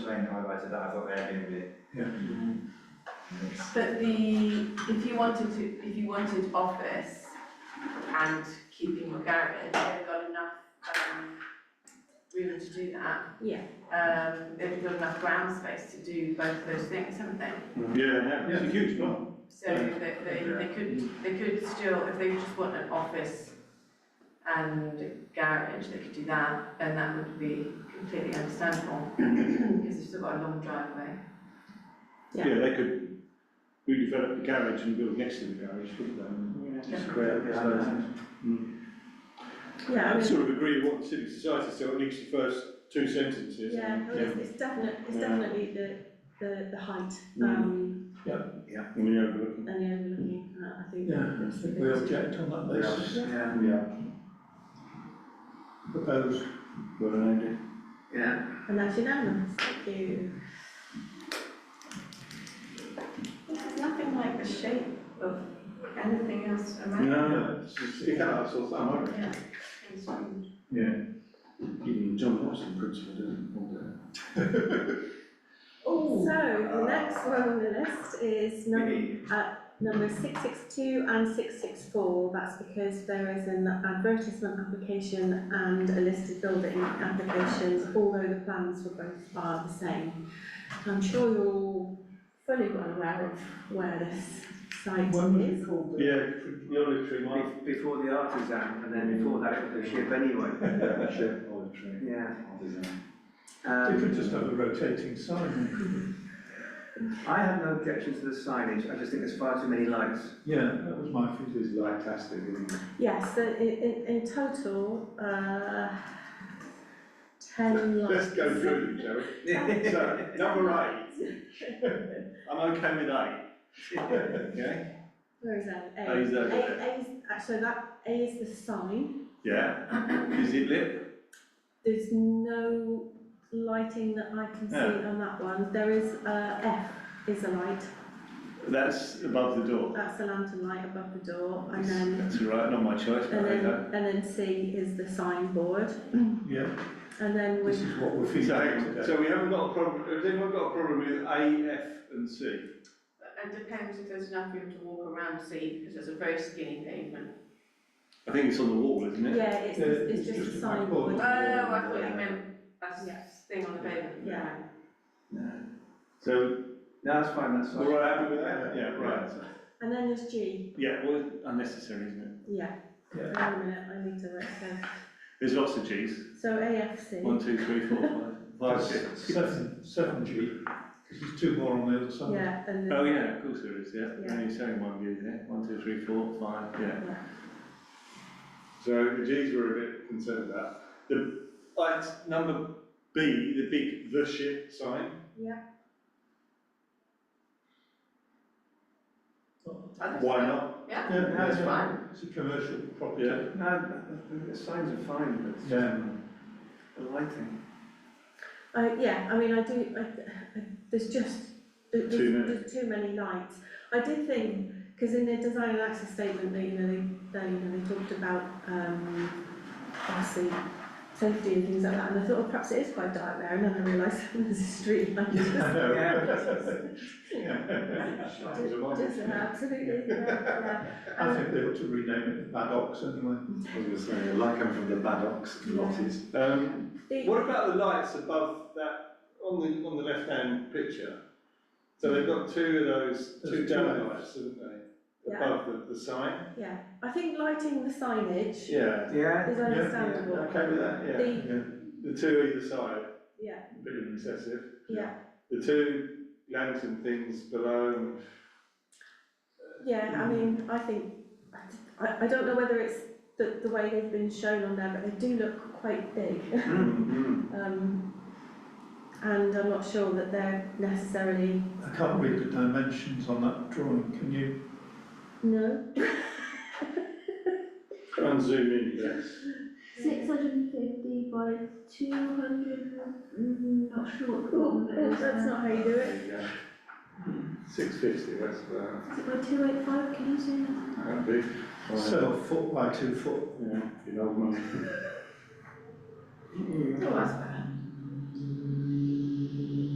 explained how I did that, I thought Airbnb. Mm-hmm. Yes. But the, if you wanted to, if you wanted office and keeping your garage, they've got enough, um, room to do that. Yeah. Um, they've got enough ground space to do both those things, haven't they? Yeah, yeah, it's a huge one. So they, they, they could, they could still, if they just want an office and garage, they could do that, and that would be completely understandable, because they've still got a long driveway. Yeah. Yeah, they could redevelop the garage and build next to the garage, couldn't they? Yeah. Square up beside it. Yeah, I I mean, sort of agree with what the civic society said, at least the first two sentences. yeah, well, it's, it's definite, it's Yeah. definitely the, the, the height, Mm. um, And we overlook. and the overlooking, uh, I think. Yeah, I that's the think we biggest- object on that basis, Yeah, Yeah. proposed. Well, Andy. yeah. And that's unanimous, thank you. There's nothing like the shape of anything else around. No, it's just, it can't outsource that much. Yeah, it's um, Even John Watson principle doesn't want that. So, the next one on the list is number, number six six two and six six four. That's because there is an advertisement application and a listed building applications, although the plans for both are the same. I'm sure you're all fully well aware of where this site When was is. it called? Yeah, the olive tree might. Be- Before the artisan, and then before that it was the ship anyway, Sure, olive tree. yeah. They could Um, just have a rotating sign, couldn't I have no objection to the signage, I just think there's far too many lights. they? Yeah, that was my feeling. This is lightastic, isn't it? Yes, so in, in, in total, uh, ten lights. Let's go through them, shall we? So, number eight. I'm okay with eight. Okay? Where is that? A. A is over there. A, A is, actually, that, A is the sign, Yeah. Is it lit? there's no lighting that I can see Yeah. on that one, there is, uh, F is a light, That's above the door. that's the lantern light above the door, and then, That's all right, not my choice, but and there you then, go. and then C is the signboard, Yeah, and then this with, is what we're feeling So, hang on, today. so we haven't got a problem, has anyone got a problem with A, F and C? It depends if there's enough room to walk around to see, because there's a very skinny pavement. I think it's on the wall, isn't it? yeah, it's, Yeah, it's just a signboard. Oh, blackboard. I thought you meant that's Yeah. thing on the pavement. Yeah. So, No, that's fine, that's fine. we're all happy with that? Yeah, right. And then there's G, Yeah, well, unnecessary, isn't it? yeah, Yeah. wait a minute, I need to write that, There's lots of Gs. so AFC, One, two, three, four, five, five, That's six. Seven, seven G, 'cause there's two more on the other side. yeah, and then. Oh, yeah, of course there is, yeah. Yeah. Only showing one view there. One, two, three, four, five, yeah. Yeah. So the Gs were a bit concerned about. The, like, number B, the big the shit sign. I think Why so. not? Yeah, Yeah, no, that's it's fine. fine, it's a commercial property. Yeah. No, the signs are fine, but it's just Yeah. the lighting. Uh, yeah, I mean, I do, I, I, there's just, there- there's, Too many. there's too many lights. I did think, because in their design and access statement, they, you know, they, they, you know, they talked about, um, obviously, safety and things like that, and I thought, well, perhaps it is quite dark there, and then I realised there's a street light. Just an absolutely, yeah, Um, I think they ought to rename it the Maddox anyway. I was gonna say, a light coming from the Maddox Yeah. lotties. Um, yeah. what about the lights above that, on the, on the left-hand picture? So they've got two of those, two There's two of down those. lights, haven't they? Yeah. Above the, the sign? The- Yeah, I think lighting the signage is Yeah. Yeah, understandable. Okay with that, yeah. The, The two either side, yeah, a bit excessive. yeah, The two lantern things below and Mm. Yeah, I mean, I think, I, I don't know whether it's the, the way they've been shown on there, but they do look quite big. Mm-hmm. Um, and I'm not sure that they're necessarily, I can't read the dimensions on that drawing, can you? no, Try and zoom in, yes. Six hundred and fifty by two hundred, not sure what the one oh, is. that's not how you do it. There you go. Six fifty, that's about, Is it by two eight five, can you say that? that'd be. So a foot by two foot. Yeah, you know, man. Oh, that's bad.